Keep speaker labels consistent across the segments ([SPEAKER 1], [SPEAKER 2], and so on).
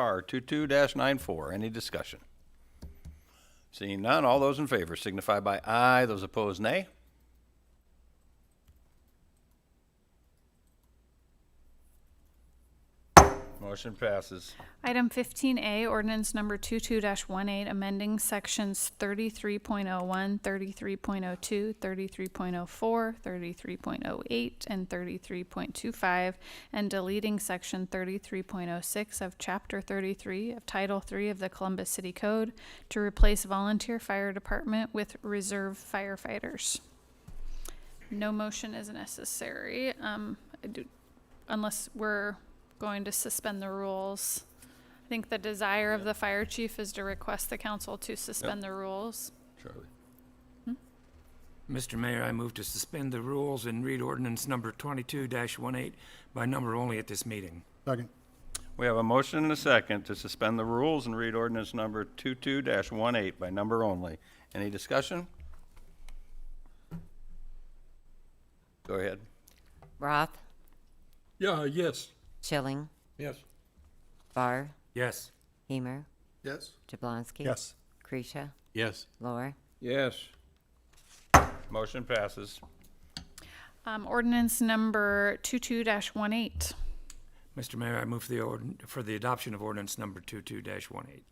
[SPEAKER 1] R 22-94. Any discussion? Seeing none, all those in favor signify by aye. Those opposed, nay. Motion passes.
[SPEAKER 2] Item fifteen A, ordinance number 22 one eight, amending sections 33.01, 33.02, 33.04, 33.08, and thirty-three point two five, and deleting section thirty-three point oh six of chapter thirty-three of title three of the Columbus City Code to replace volunteer fire department with reserve firefighters. No motion is necessary, um, I do- unless we're going to suspend the rules. I think the desire of the fire chief is to request the council to suspend the rules.
[SPEAKER 1] Charlie.
[SPEAKER 3] Mr. Mayor, I move to suspend the rules and read ordinance number 22-18 by number only at this meeting.
[SPEAKER 4] Second.
[SPEAKER 1] We have a motion and a second to suspend the rules and read ordinance number 22-18 by number only. Any discussion? Go ahead.
[SPEAKER 5] Roth,
[SPEAKER 6] Yeah, yes.
[SPEAKER 5] Chilling,
[SPEAKER 6] Yes.
[SPEAKER 5] Barr,
[SPEAKER 3] Yes.
[SPEAKER 5] Hemer,
[SPEAKER 6] Yes.
[SPEAKER 5] Jablonski.
[SPEAKER 4] Yes.
[SPEAKER 5] Creasha,
[SPEAKER 6] Yes.
[SPEAKER 5] Lor,
[SPEAKER 6] Yes.
[SPEAKER 1] Motion passes.
[SPEAKER 2] Um, ordinance number two-two dash one-eight.
[SPEAKER 3] Mr. Mayor, I move for the ord- for the adoption of ordinance number 22-18.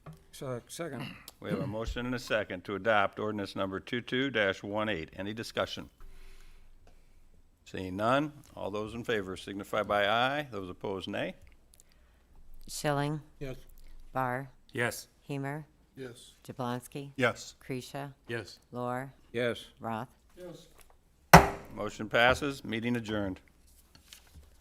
[SPEAKER 6] Second.
[SPEAKER 1] We have a motion and a second to adopt ordinance number 22-18. Any discussion? Seeing none, all those in favor signify by aye. Those opposed, nay.
[SPEAKER 5] Schilling,
[SPEAKER 6] Yes.
[SPEAKER 5] Barr,
[SPEAKER 3] Yes.
[SPEAKER 5] Hemer,
[SPEAKER 6] Yes.
[SPEAKER 5] Jablonski,
[SPEAKER 4] Yes.
[SPEAKER 5] Creasha,
[SPEAKER 6] Yes.
[SPEAKER 5] Lor,
[SPEAKER 6] Yes.
[SPEAKER 5] Roth.
[SPEAKER 6] Yes.
[SPEAKER 1] Motion passes, meeting adjourned.